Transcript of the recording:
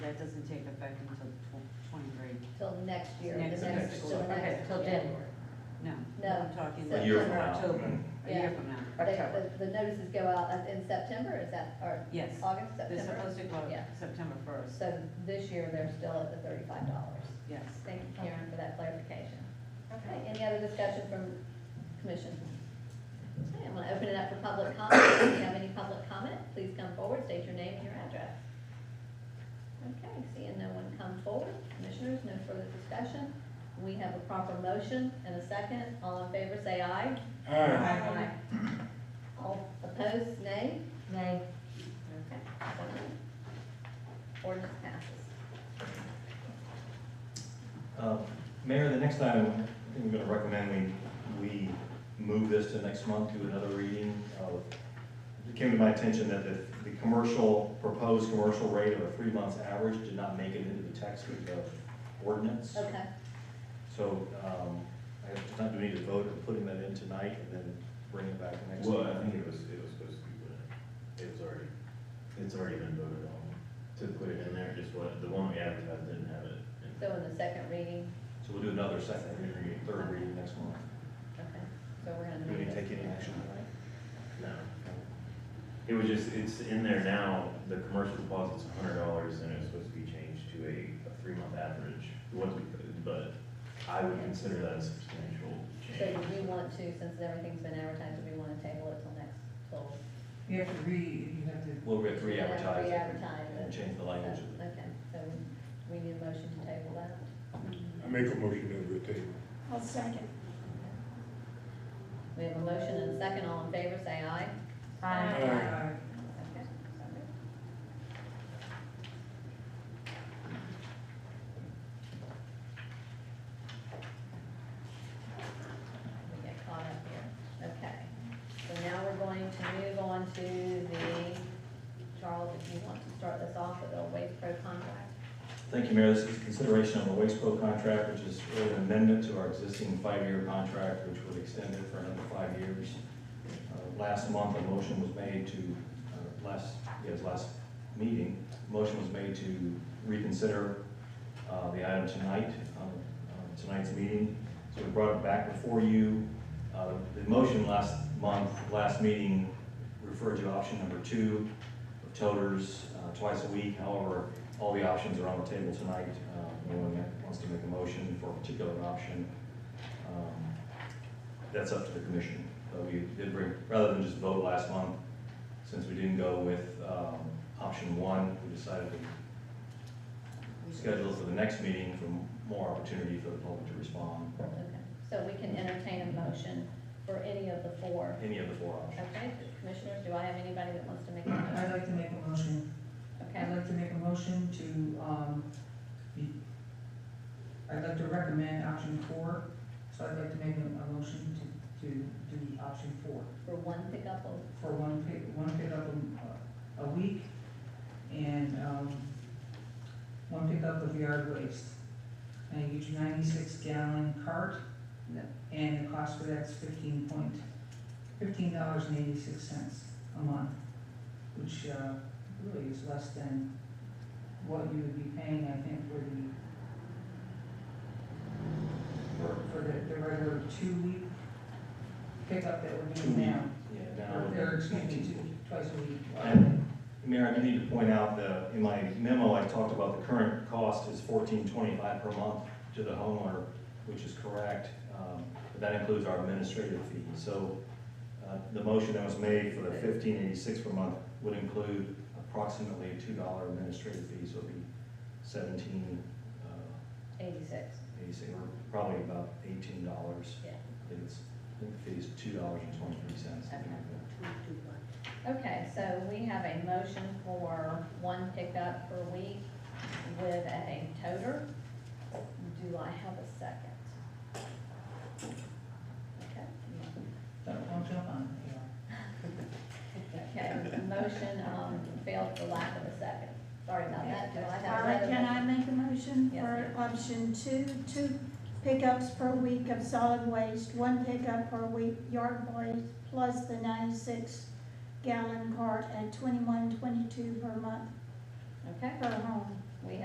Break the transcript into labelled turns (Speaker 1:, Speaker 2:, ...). Speaker 1: it doesn't take effect until twenty-three.
Speaker 2: till next year, the
Speaker 1: Next-
Speaker 2: next,
Speaker 3: next
Speaker 2: till the
Speaker 1: year. Okay,
Speaker 2: next.
Speaker 1: till
Speaker 2: yeah.
Speaker 1: January. No.
Speaker 2: No,
Speaker 1: I'm talking.
Speaker 2: A year from
Speaker 3: now.
Speaker 1: October, a
Speaker 2: Yeah.
Speaker 1: year from now.
Speaker 2: They-
Speaker 4: October.
Speaker 2: The, the notices go out at- in September, is that, or
Speaker 1: Yes,
Speaker 2: August,
Speaker 1: they're
Speaker 2: September?
Speaker 1: supposed to go out
Speaker 2: Yeah.
Speaker 1: September first,
Speaker 2: So this year, they're still at the thirty-five dollars.
Speaker 1: yes.
Speaker 2: Thank you, Karen, for that clarification.
Speaker 4: Okay.
Speaker 2: Okay, any other discussion from commission? Okay, I'm gonna open it up for public comment. If you have any public comment, please come forward, state your name and your address. Okay, seeing no one come forward, commissioners, no further discussion. We have a proper motion and a second. All in favor, say aye.
Speaker 3: Aye.
Speaker 4: Aye.
Speaker 2: All opposed, nay.
Speaker 4: Nay.
Speaker 2: Okay. so moved. Ordinance passes.
Speaker 5: Uh, Mayor, the next time, I think I'm gonna recommend we, we move this to next month to another reading. Uh, It came to my attention that the, the commercial, proposed commercial rate of a three months average did not make it into the text of the ordinance.
Speaker 2: Okay,
Speaker 5: So, um, I just not doing need to vote on putting that in tonight and then bring it back next month.
Speaker 3: Well, I think it was, it was supposed to be put in, it was already, it's already been voted on to put it in there, just what, the one we advertised didn't have it. in
Speaker 2: so in the second reading,
Speaker 5: So we'll do another second reading, third reading next month.
Speaker 2: okay, so we're gonna.
Speaker 5: Do we need
Speaker 2: move
Speaker 5: to
Speaker 2: this.
Speaker 5: take any action tonight?
Speaker 3: No. It was just, it's in there now, the commercial deposit's a hundred dollars and it was supposed to be changed to a, a three-month average. It wasn't, but I would consider that a substantial
Speaker 2: So
Speaker 3: change.
Speaker 2: do we want to, since everything's been advertised, do we want to table it till next, till?
Speaker 4: You have to read, you have to.
Speaker 5: Well, we have to re-advertise it
Speaker 2: Re-advertise it.
Speaker 5: and change the
Speaker 2: so-
Speaker 5: language of it.
Speaker 2: Okay, so we need a motion to table that.
Speaker 6: I make a motion to table.
Speaker 4: I'll second.
Speaker 2: We have a motion and a second, all in favor, say aye.
Speaker 4: Aye.
Speaker 6: Aye.
Speaker 2: Okay. so moved. We get caught up here, okay. So now we're going to move on to the, Charles, if you want to start this off with a waste pro contract.
Speaker 5: Thank you, Mayor. This is consideration of a waste pro contract, which is really an amendment to our existing five-year contract, which would extend it for another five years. Uh, Last month, a motion was made to, uh, last, yes, last meeting, a motion was made to reconsider uh, the item tonight, um, uh, tonight's meeting. So we brought it back before you. Uh, The motion last month, last meeting, referred to option number two of toters uh, twice a week. However, all the options are on the table tonight. Uh, No one wants to make a motion for a particular option. Um, That's up to the commission. But we did bring, rather than just vote last month, since we didn't go with um, option one, we decided to schedule for the next meeting for more opportunity for the public to respond,
Speaker 2: Okay, so we can entertain a motion for any of the four.
Speaker 5: any of the four options.
Speaker 2: Okay, commissioners, do I have anybody that wants to make a
Speaker 4: I'd
Speaker 2: motion?
Speaker 4: like to make a motion,
Speaker 2: Okay,
Speaker 4: I'd like to make a motion to, um, be- I'd like to recommend option four, so I'd like to make a, a motion to, to do option four.
Speaker 2: for one pickup, of-
Speaker 4: For one pick, one pickup a, a week, and, um, one pickup of yard waste. And each ninety-six gallon cart, and the cost for that's fifteen point, fifteen dollars and eighty-six cents a month, which, uh, really is less than what you would be paying, I think, for the, for, for the, the regular two-week pickup that we're doing now.
Speaker 5: Yeah,
Speaker 4: Or,
Speaker 5: down.
Speaker 4: or excuse me, two- twice a week.
Speaker 5: And- Mayor, I do need to point out that in my memo, I talked about the current cost is fourteen twenty-five per month to the homeowner, which is correct. um, But that includes our administrative fee. So uh, the motion that was made for the fifteen eighty-six per month would include approximately a two dollar administrative fee, so it'd be seventeen uh,
Speaker 2: eighty-six,
Speaker 5: eighty-six, or probably about eighteen dollars.
Speaker 2: yeah.
Speaker 5: I think it's, I think the fee is two dollars and twenty-three cents.
Speaker 2: Okay, so we have a motion for one pickup per week with a toter. Do I have a second? Okay,
Speaker 4: Don't, don't jump on it, yeah.
Speaker 2: okay, motion, um, failed for lack of a second. Sorry about that, do I have
Speaker 7: Alright,
Speaker 2: another?
Speaker 7: can I
Speaker 2: motion?
Speaker 7: make a motion
Speaker 2: Yes,
Speaker 7: for option two, two pickups per week of solid waste, one pickup per week yard waste, plus the ninety-six gallon cart at twenty-one, twenty-two per month
Speaker 2: Okay,
Speaker 7: per home.